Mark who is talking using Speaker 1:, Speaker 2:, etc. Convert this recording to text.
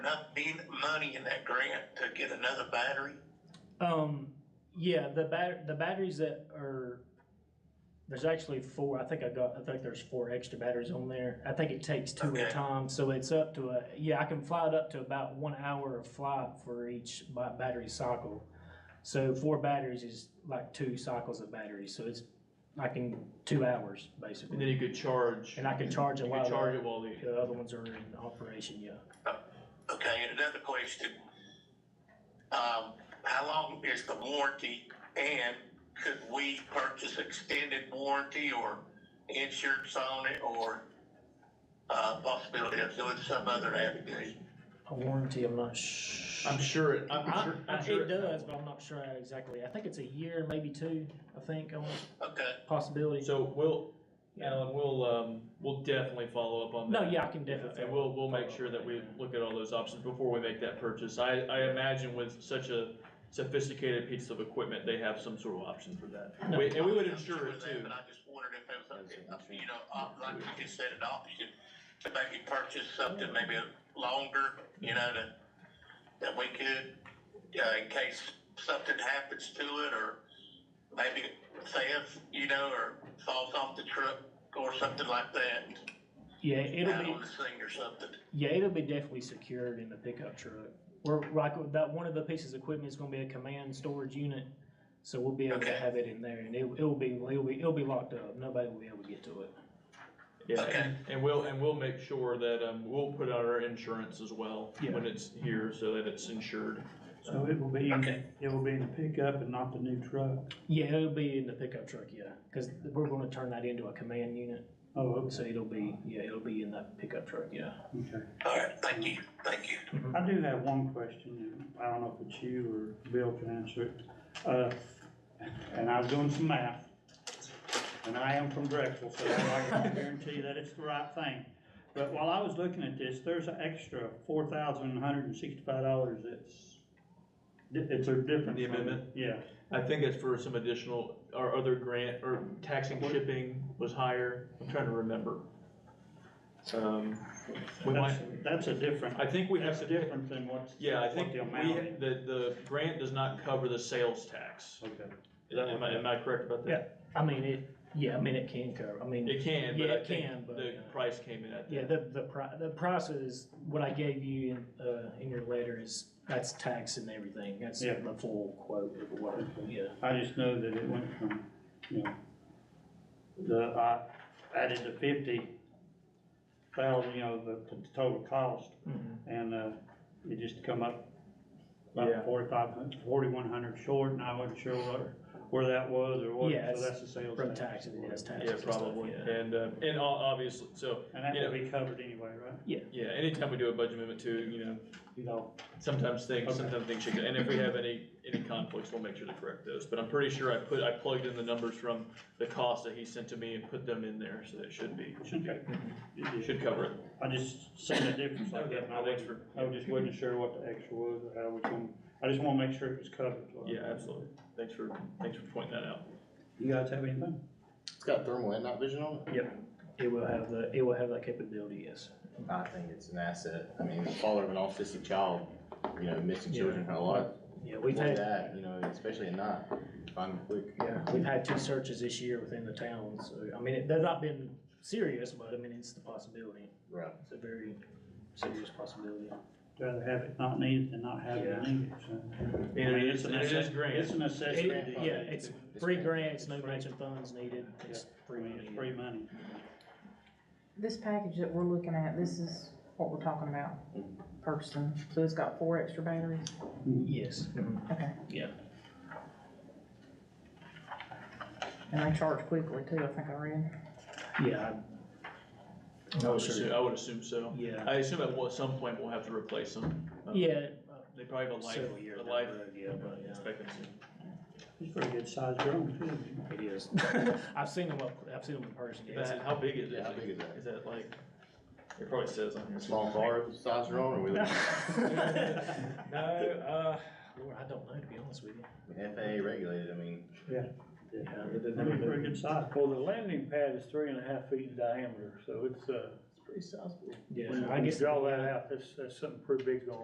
Speaker 1: enough be- money in that grant to get another battery?
Speaker 2: Um, yeah, the bat, the batteries that are, there's actually four, I think I got, I think there's four extra batteries on there. I think it takes two at
Speaker 1: Okay.
Speaker 2: a time, so it's up to a, yeah, I can fly it up to about one hour of flight for each ba- battery cycle. So four batteries is like two cycles of batteries, so it's, I can, two hours,
Speaker 3: And
Speaker 2: basically.
Speaker 3: then you could charge.
Speaker 2: And I can charge it
Speaker 3: You
Speaker 2: while
Speaker 3: could
Speaker 2: the-
Speaker 3: charge it while the,
Speaker 2: The other ones are in operation, yeah.
Speaker 1: Okay, and another question. Um, how long is the warranty and could we purchase extended warranty or insurance on it or uh, possibility of doing some other avenue?
Speaker 2: A warranty, I'm not sh-
Speaker 3: I'm sure it, I'm
Speaker 2: I,
Speaker 3: sure.
Speaker 2: I,
Speaker 3: I'm sure
Speaker 2: it does, but I'm not sure exactly. I think it's a year, maybe two, I think, on
Speaker 1: Okay,
Speaker 2: possibility.
Speaker 3: So we'll, Alan, we'll, um, we'll definitely follow up on that.
Speaker 2: No, yeah, I can definitely.
Speaker 3: And we'll, we'll make sure that we look at all those options before we make that purchase. I, I imagine with such a sophisticated piece of equipment, they have some sort of option for that. We- And we would insure it too.
Speaker 1: But I just wondered if it was, if, you know, op- like you just said, an option to maybe purchase something maybe longer, you know, that, that we could, uh, in case something happens to it or maybe theft, you know, or falls off the truck or something like that.
Speaker 2: Yeah,
Speaker 1: out
Speaker 2: it'll
Speaker 1: on
Speaker 2: be,
Speaker 1: the thing or something.
Speaker 2: yeah, it'll be definitely secured in the pickup truck. We're like, that, one of the pieces of equipment is gonna be a command storage unit. So we'll be able to
Speaker 1: Okay.
Speaker 2: have it in there and it, it'll be, it'll be, it'll be locked up. Nobody will be able to get to it.
Speaker 3: Yeah,
Speaker 1: Okay.
Speaker 3: and- and we'll, and we'll make sure that, um, we'll put out our insurance as well
Speaker 2: Yeah.
Speaker 3: when it's here so that it's insured.
Speaker 4: So it will be,
Speaker 1: Okay.
Speaker 4: it will be in the pickup and not the new truck?
Speaker 2: Yeah, it'll be in the pickup truck, yeah, cause we're gonna turn that into a command unit.
Speaker 4: Oh, okay,
Speaker 2: So it'll be, yeah, it'll be in that pickup truck, yeah.
Speaker 4: okay.
Speaker 1: All right, thank you, thank you.
Speaker 4: I do have one question, and I don't know if it's you or Bill can answer it. Uh, and I was doing some math, and I am from Drexel, so I can guarantee that it's the right thing. But while I was looking at this, there's an extra four thousand one hundred and sixty-five dollars that's, it's a difference.
Speaker 3: The amendment?
Speaker 4: Yeah,
Speaker 3: I think it's for some additional, our other grant, or tax and shipping was higher, I'm trying to remember. Um, we might,
Speaker 4: that's, that's a different,
Speaker 3: I think we have
Speaker 4: that's
Speaker 3: to.
Speaker 4: different than what's,
Speaker 3: Yeah, I
Speaker 4: what
Speaker 3: think we,
Speaker 4: the amount is.
Speaker 3: the, the grant does not cover the sales tax.
Speaker 4: Okay.
Speaker 3: Is that- Am I, am I correct about that?
Speaker 2: I mean, it, yeah, I mean, it can cover, I mean.
Speaker 3: It can,
Speaker 2: Yeah,
Speaker 3: but I
Speaker 2: it can,
Speaker 3: think
Speaker 2: but,
Speaker 3: the
Speaker 2: yeah.
Speaker 3: price came in at
Speaker 2: Yeah,
Speaker 3: that.
Speaker 2: the, the pri- the price is, what I gave you in, uh, in your letter is, that's tax and everything, that's
Speaker 4: Yeah.
Speaker 2: the full quote of what, yeah.
Speaker 4: I just know that it went from, you know, the, I added the fifty thousand, you know, the, the total cost, and, uh, it just come up
Speaker 3: Yeah.
Speaker 4: about forty-five hundred, forty-one hundred short, and I wasn't sure where, where that was or what,
Speaker 2: Yeah,
Speaker 4: so
Speaker 2: it's
Speaker 4: that's the sales
Speaker 2: From
Speaker 4: tax.
Speaker 2: taxes, it has taxes
Speaker 3: Yeah,
Speaker 2: and stuff,
Speaker 3: probably,
Speaker 2: yeah.
Speaker 3: and, uh, and o- obviously, so,
Speaker 4: And that
Speaker 3: you know,
Speaker 4: will be covered anyway, right?
Speaker 3: yeah, anytime we do a budget amendment too, you know,
Speaker 4: You know,
Speaker 3: sometimes things,
Speaker 4: Okay.
Speaker 3: sometimes things should, go- and if we have any, any conflicts, we'll make sure to correct those. But I'm pretty sure I put, I plugged in the numbers from the cost that he sent to me and put them in there, so it should be, should be,
Speaker 4: it is.
Speaker 3: should cover it.
Speaker 4: I just seen the difference like that, and I
Speaker 3: Okay, thanks
Speaker 4: wasn't, I just wasn't sure what the extra was, or how we gonna, I just wanna make sure it was covered. so.
Speaker 3: Yeah, absolutely. Thanks for, thanks for pointing that out.
Speaker 4: You guys have anything?
Speaker 5: It's got thermal and night vision on it.
Speaker 2: It will have the, it will have that capability, yes.
Speaker 5: I think it's an asset. I mean, the father of an autistic child, you know, missing
Speaker 2: Yeah.
Speaker 5: children a lot.
Speaker 2: Yeah, we've
Speaker 5: More
Speaker 2: had,
Speaker 5: that, you know, especially at night, find them quick.
Speaker 2: yeah, we've had two searches this year within the town, so, I mean, it, they've not been serious, but I mean, it's the possibility,
Speaker 5: Right.
Speaker 2: it's a very serious possibility.
Speaker 4: Rather have it not needed than not have it
Speaker 2: Yeah.
Speaker 4: needed, so.
Speaker 3: And
Speaker 4: I mean,
Speaker 3: it is, and it is
Speaker 4: necess-
Speaker 3: grant.
Speaker 4: It's a necessity.
Speaker 2: It- Yeah, it's free grants, no matching funds needed, it's
Speaker 4: I
Speaker 2: free
Speaker 4: mean,
Speaker 2: money.
Speaker 4: it's free money.
Speaker 6: This package that we're looking at, this is what we're talking about purchasing. So it's got four extra batteries.
Speaker 2: Yes.
Speaker 6: Okay.
Speaker 2: Yeah.
Speaker 6: And they charge quickly too, I think I read.
Speaker 2: Yeah.
Speaker 3: I would assume, I would assume so.
Speaker 2: Yeah.
Speaker 3: I assume at what- some point we'll have to replace them. Um,
Speaker 2: Yeah.
Speaker 3: They probably have a life,
Speaker 2: Several years
Speaker 3: a
Speaker 2: down the
Speaker 3: life
Speaker 2: road, yeah, but yeah.
Speaker 3: expectancy.
Speaker 4: It's a pretty good sized drone too.
Speaker 2: It is. I've seen them up, I've seen them in person.
Speaker 3: That's it. How big is it?
Speaker 5: Yeah, how big is that?
Speaker 3: Is that like, it probably says on here.
Speaker 5: Small car size drone, or we look
Speaker 2: No, uh, Lord, I don't know, to be honest with you.
Speaker 5: FAA regulated. I mean,
Speaker 4: That'd be pretty good size.
Speaker 7: Well, the landing pad is three and a half feet in diameter, so it's, uh, pretty sizable.
Speaker 2: Yeah,
Speaker 4: When
Speaker 2: I
Speaker 4: you
Speaker 2: guess.
Speaker 4: Draw that out, that's, that's something pretty big going